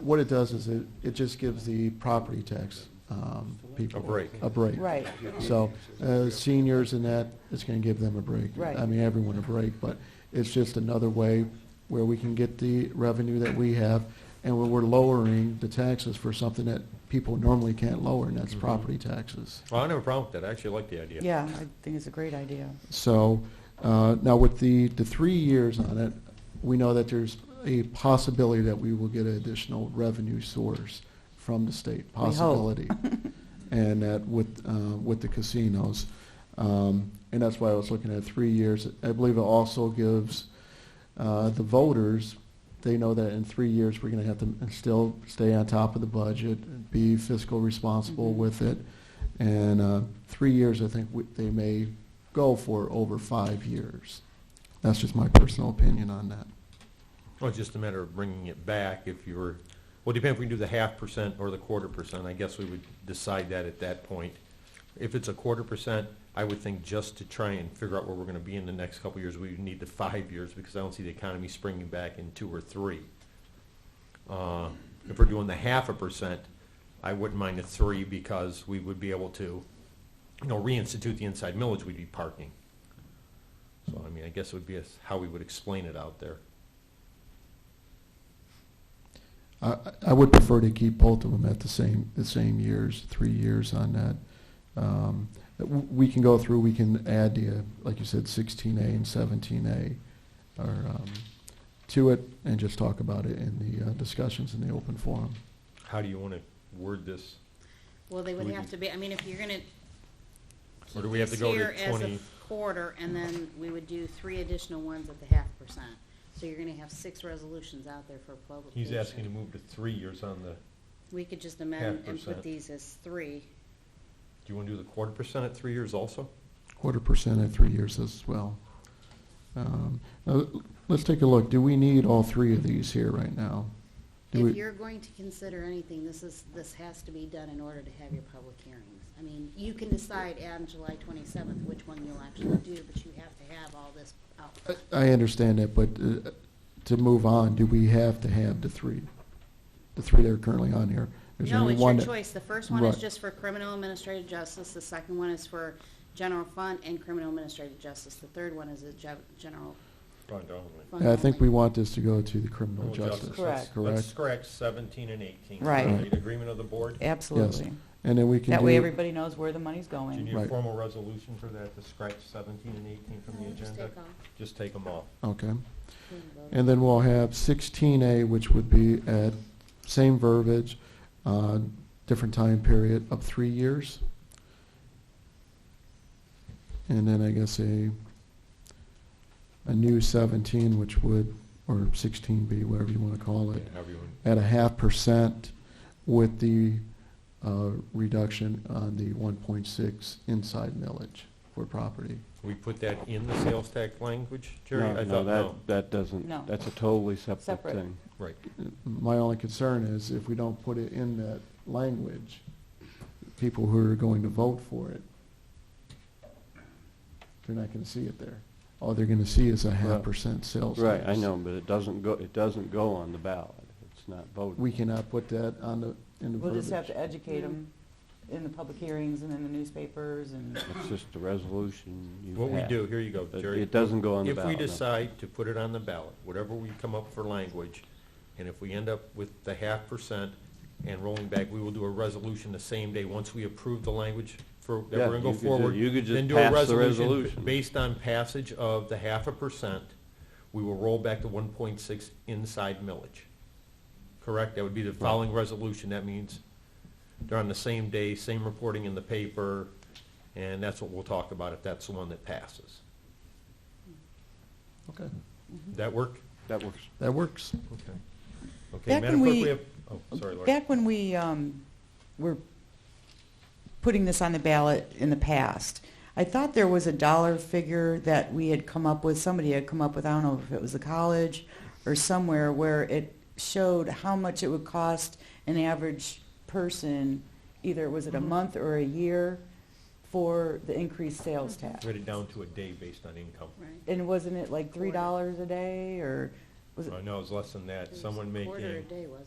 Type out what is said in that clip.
What it does is it, it just gives the property tax um, people. A break. A break. Right. So uh, seniors and that, it's going to give them a break. Right. I mean, everyone a break, but it's just another way where we can get the revenue that we have, and where we're lowering the taxes for something that people normally can't lower, and Mm-hmm. that's property taxes. Well, I don't have a problem with that. I actually like the idea. Yeah, I think it's a great idea. So uh, now with the, the three years on it, we know that there's a possibility that we will get an additional revenue source from the state. We hope. Possibility. and that with, uh, with the casinos. Um, and that's why I was looking at three years. I believe it also gives uh, the voters, they know that in three years we're going to have to still stay on top of the budget, be fiscal responsible Mhm. with it. And uh, three years, I think we, they may go for over five years. That's just my personal opinion on that. Well, Oh, it's just a matter of bringing it back if you were, well, depending if we can do the half percent or the quarter percent, I guess we would decide that at that point. If it's a quarter percent, I would think just to try and figure out where we're gonna be in the next couple of years, we would need the five years, because I don't see the economy springing back in two or three. Uh, If we're doing the half a percent, I wouldn't mind the three, because we would be able to, you know, reinstitute the inside millage we'd be parking. So, I mean, I guess it would be as- how we would explain it out there. I, I would prefer to keep both of them at the same, the same years, three years on that. Um, w- We can go through, we can add the, uh, like you said, 16A and 17A or, um, to it and just talk about it in the uh, discussions in the open forum. How do you want to word this? Well, they would We have do- to be, I mean, if you're gonna Or keep do we have this to go to here as 20? a quarter, and then we would do three additional ones at the half percent. So you're gonna have six resolutions out there for publication. He's asking to move to three years on the, do We could just amend half and put percent. these as three. you want to do the quarter percent at three years also? Quarter percent at three years as well. Um, now, Let's take a look. Do we need all three of these here right now? Do If we- you're going to consider anything, this is, this has to be done in order to have your public hearings. I mean, you can decide on July twenty-seventh which one you'll actually do, but you have to have all this out. front. I- I understand that, but uh, to move on, do we have to have the three, the three that are currently on here? There's No, only it's one your that- choice. The first one is Right. just for criminal administrative justice, the second one is for general fund and criminal administrative justice, the third one is a ge- general fund. I think we only. want this to go to the criminal justice. Let's Correct. Correct. scratch seventeen and eighteen. Right. Is that In agreement of the board? Do Absolutely. And then we can do. That way, everybody knows where the money's you need going. a Right. formal resolution for that, to scratch seventeen and eighteen from the No, just agenda? take off. Just take them off. Okay. We haven't voted. And then we'll have sixteen A, which would be at same verbiage, uh, different time period, up three years. And then I guess a, a new seventeen, which would, or sixteen B, whatever you want to call it, However you want. at a half percent with the uh, reduction on the one point six inside millage for property. We put that in the sales tax language, Jerry? No, I no, thought no. that, that doesn't, No. that's a totally separate Separate. thing. Right. My only concern is if we don't put it in that language, people who are going to vote for it, they're not gonna see it there. All they're gonna see is a half Right. percent sales tax. Right, I know, but it doesn't go, it doesn't go on the ballot. It's not voted. We cannot put that on the, in the We'll just have verbiage. to educate them in the public hearings and in the newspapers and, It's just a resolution you have. What we do, here you go, It- Jerry. it doesn't go on the If ballot, we no. decide to put it on the ballot, whatever we come up for language, and if we end up with the half percent and rolling back, we will do a resolution the same day, once we approve the language for, that Yeah, we're gonna you go could ju- forward. you could just then do a pass the resolution resolution. Based on passage of the half a percent, we will roll back the one point six inside millage. Correct? That would be the following resolution. That means they're on the same day, same reporting in the paper, and that's what we'll talk about if that's the one that passes. Okay, That work? That works. that works. Okay. Okay, Back Madam when Clerk, we we- have, oh, sorry, Lori. back when we um, were putting this on the ballot in the past, I thought there was a dollar figure that we had come up with, somebody had come up with, I don't know if it was the college or somewhere, where it showed how much it would cost an average person, either was it a month or a year, for the increased sales tax. Write it down to a day based on income. Right. And wasn't it like $3 a day, or was it I know it's less than It that. was Someone a Quarter a making day, wasn't